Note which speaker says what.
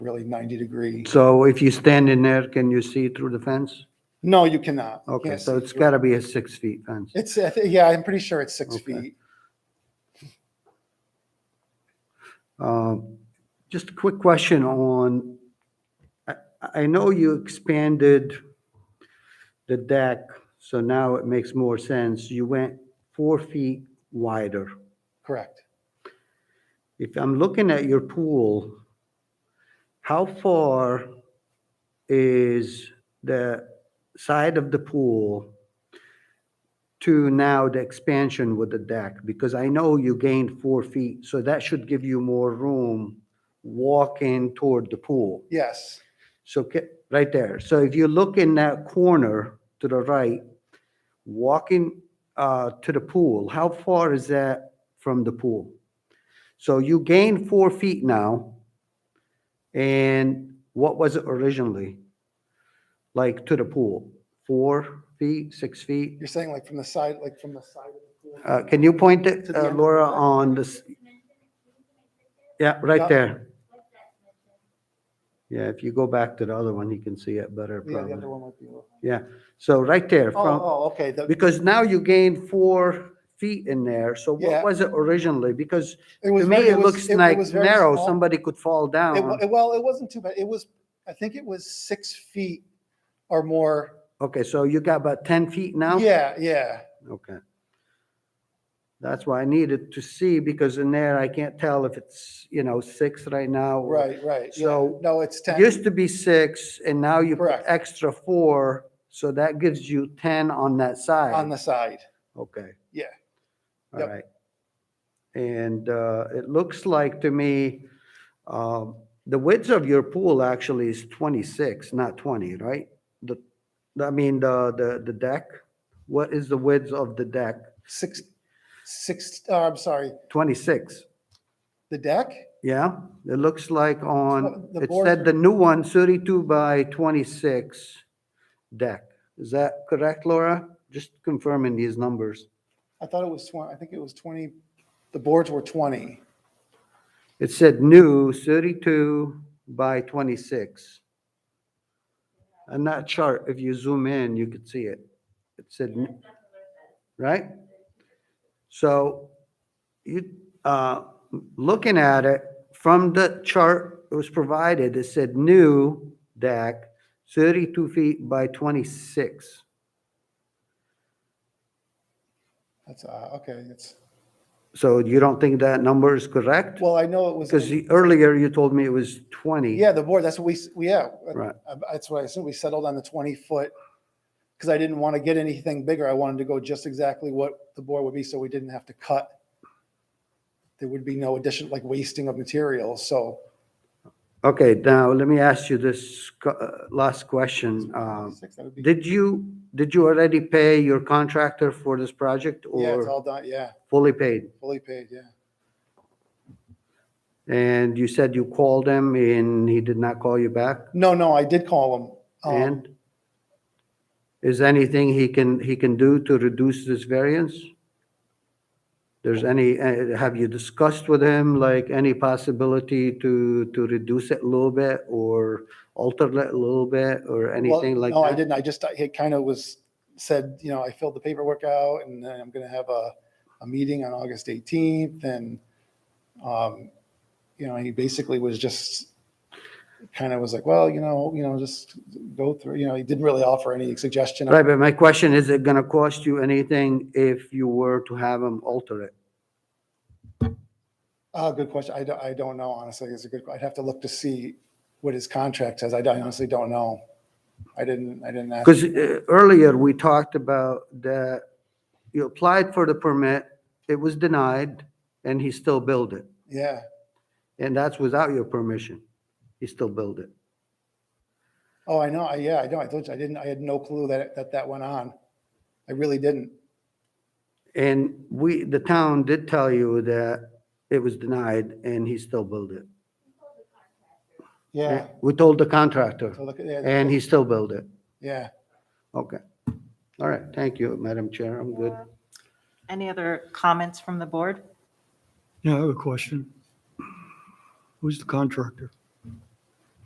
Speaker 1: really 90 degree.
Speaker 2: So if you stand in there, can you see through the fence?
Speaker 1: No, you cannot. You
Speaker 2: Okay,
Speaker 1: can't
Speaker 2: so
Speaker 1: see
Speaker 2: it's
Speaker 1: through.
Speaker 2: gotta be a six feet fence.
Speaker 1: It's, I thi- yeah, I'm pretty sure it's six
Speaker 2: Okay.
Speaker 1: feet.
Speaker 2: Um, Just a quick question on, I, I know you expanded the deck, so now it makes more sense. You went four feet wider.
Speaker 1: Correct.
Speaker 2: If I'm looking at your pool, how far is the side of the pool to now the expansion with the deck? Because I know you gained four feet, so that should give you more room walking toward the pool.
Speaker 1: Yes.
Speaker 2: So, ca- right there. So if you look in that corner to the right, walking uh, to the pool, how far is that from the pool? So you gain four feet now. And what was it originally? Like to the pool, four feet, six feet?
Speaker 1: You're saying like from the side, like from the side of the pool?
Speaker 2: Uh, Can you point it,
Speaker 1: To the
Speaker 2: uh,
Speaker 1: end.
Speaker 2: Laura, on this? Yeah,
Speaker 1: Yeah.
Speaker 2: right there. Yeah, if you go back to the other one, you can see it better
Speaker 1: Yeah, the other
Speaker 2: probably.
Speaker 1: one might be. a little-
Speaker 2: Yeah, so right there.
Speaker 1: Oh,
Speaker 2: from-
Speaker 1: oh, okay. the-
Speaker 2: Because now you gain four feet in there, so
Speaker 1: Yeah.
Speaker 2: what was it originally? Because
Speaker 1: It
Speaker 2: to
Speaker 1: was
Speaker 2: me,
Speaker 1: very-
Speaker 2: it
Speaker 1: was-
Speaker 2: looks like
Speaker 1: was very
Speaker 2: narrow,
Speaker 1: small.
Speaker 2: somebody could fall
Speaker 1: It wa-
Speaker 2: down.
Speaker 1: Well, it wasn't too bad. It was, I think it was six feet or more.
Speaker 2: Okay, so you got about 10 feet now?
Speaker 1: Yeah, yeah.
Speaker 2: Okay. That's why I needed to see, because in there, I can't tell if it's, you know, six right now. or-
Speaker 1: Right, right. yeah.
Speaker 2: So
Speaker 1: No, it's 10.
Speaker 2: Used to be six, and now you put
Speaker 1: Correct.
Speaker 2: extra four, so that gives you 10 on that side.
Speaker 1: On the side.
Speaker 2: Okay.
Speaker 1: Yeah.
Speaker 2: All
Speaker 1: Yep.
Speaker 2: right. And uh, it looks like to me, um, the width of your pool actually is 26, not 20, right? The, I mean, the, the the deck, what is the width of the deck?
Speaker 1: Six, six, oh, I'm sorry,
Speaker 2: 26,
Speaker 1: the deck?
Speaker 2: yeah? It looks like on,
Speaker 1: The
Speaker 2: it
Speaker 1: boards are-
Speaker 2: said the new one, 32 by 26 deck. Is that correct, Laura? Just confirming these numbers.
Speaker 1: I thought it was 20, I think it was 20, the boards were 20.
Speaker 2: It said new, 32 by 26. And that chart, if you zoom in, you could see it. It said, n- right? So you, uh, looking at it, from the chart that was provided, it said new deck, 32 feet by 26.
Speaker 1: That's, uh, okay, it's,
Speaker 2: So you don't think that number is correct?
Speaker 1: well, I know it was,
Speaker 2: Because the- earlier you told me it was 20.
Speaker 1: yeah, the board, that's what we, s- we- yeah. uh,
Speaker 2: Right.
Speaker 1: uh, That's what I assumed, we settled on the 20 foot, because I didn't want to get anything bigger. I wanted to go just exactly what the board would be, so we didn't have to cut. There would be no addition, like wasting of materials, so.
Speaker 2: Okay, now let me ask you this co- uh, last question. Um,
Speaker 1: Six, that would be-
Speaker 2: Did you, did you already pay your contractor for this project
Speaker 1: Yeah, it's
Speaker 2: or
Speaker 1: all done, yeah,
Speaker 2: fully paid?
Speaker 1: fully paid, yeah.
Speaker 2: And you said you called him and he did not call you back?
Speaker 1: No, no, I did call him. um,
Speaker 2: And is anything he can, he can do to reduce this variance? There's any, uh, have you discussed with him, like, any possibility to, to reduce it a little bit or alter it a little bit or
Speaker 1: Well,
Speaker 2: anything like that?
Speaker 1: No, I didn't. I just, I- it kind of was said, you know, I filled the paperwork out and then I'm going to have a, a meeting on August 18th and, um, you know, he basically was just kind of was like, well, you know, you know, just go through, you know, he didn't really offer any suggestion.
Speaker 2: Right, but my question, is it gonna cost you anything if you were to have them alter it?
Speaker 1: Uh, good question. I don't, I don't know, honestly. It's a good, I'd have to look to see what his contract says. I don't- I honestly don't know. I didn't, I didn't ask.
Speaker 2: Because uh, earlier, we talked about that you applied for the permit, it was denied, and he still built it.
Speaker 1: Yeah.
Speaker 2: And that's without your permission. He still built it.
Speaker 1: Oh, I know. I, yeah, I know. I told you, I didn't, I had no clue that, that that went on. I really didn't.
Speaker 2: And we, the town did tell you that it was denied, and he still built it.
Speaker 1: Yeah.
Speaker 2: We told the contractor,
Speaker 1: So look at, yeah,
Speaker 2: and he still built it.
Speaker 1: yeah.
Speaker 2: Okay. All right, thank you, Madam Chair, I'm good.
Speaker 3: Any other comments from the board?
Speaker 4: Yeah, I have a question. Who's the contractor?